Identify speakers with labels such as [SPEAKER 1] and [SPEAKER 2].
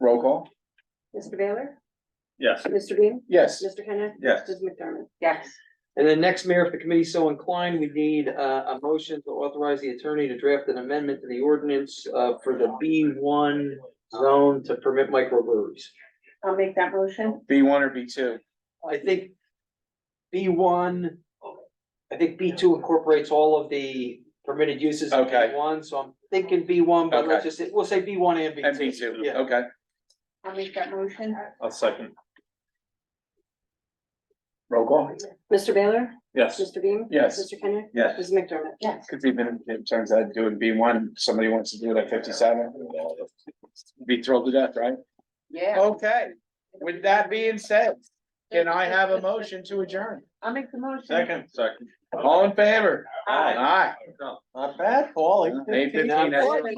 [SPEAKER 1] Roll call?
[SPEAKER 2] Mr. Baylor?
[SPEAKER 1] Yes.
[SPEAKER 2] Mr. Bean?
[SPEAKER 1] Yes.
[SPEAKER 2] Mr. Kenneth?
[SPEAKER 1] Yes.
[SPEAKER 2] Mrs. McDermott? Yes.
[SPEAKER 3] And then next, Mayor, if the committee so inclined, we need uh, a motion to authorize the attorney to draft an amendment to the ordinance uh, for the B one zone to permit microbreweries.
[SPEAKER 2] I'll make that motion.
[SPEAKER 1] B one or B two?
[SPEAKER 3] I think B one, I think B two incorporates all of the permitted uses of
[SPEAKER 1] Okay.
[SPEAKER 3] B one, so I'm thinking B one, but let's just, we'll say B one and B two.
[SPEAKER 1] And B two,
[SPEAKER 3] Yeah.
[SPEAKER 1] okay.
[SPEAKER 2] I'll make that motion.
[SPEAKER 1] I'll second. Roll call?
[SPEAKER 2] Mr. Baylor?
[SPEAKER 1] Yes.
[SPEAKER 2] Mr. Bean?
[SPEAKER 1] Yes.
[SPEAKER 2] Mr. Kenneth?
[SPEAKER 1] Yes.
[SPEAKER 2] Mrs. McDermott? Yes.
[SPEAKER 1] Cause even if it turns out doing B one, somebody wants to do it at fifty-seven. Be thrilled to death, right?
[SPEAKER 2] Yeah.
[SPEAKER 1] Okay, with that being said, can I have a motion to adjourn?
[SPEAKER 2] I'll make the motion.
[SPEAKER 1] Second. All in favor?
[SPEAKER 2] Aye.
[SPEAKER 1] Aye. Not bad, Paul. Eight fifteen.
[SPEAKER 3] Not bad.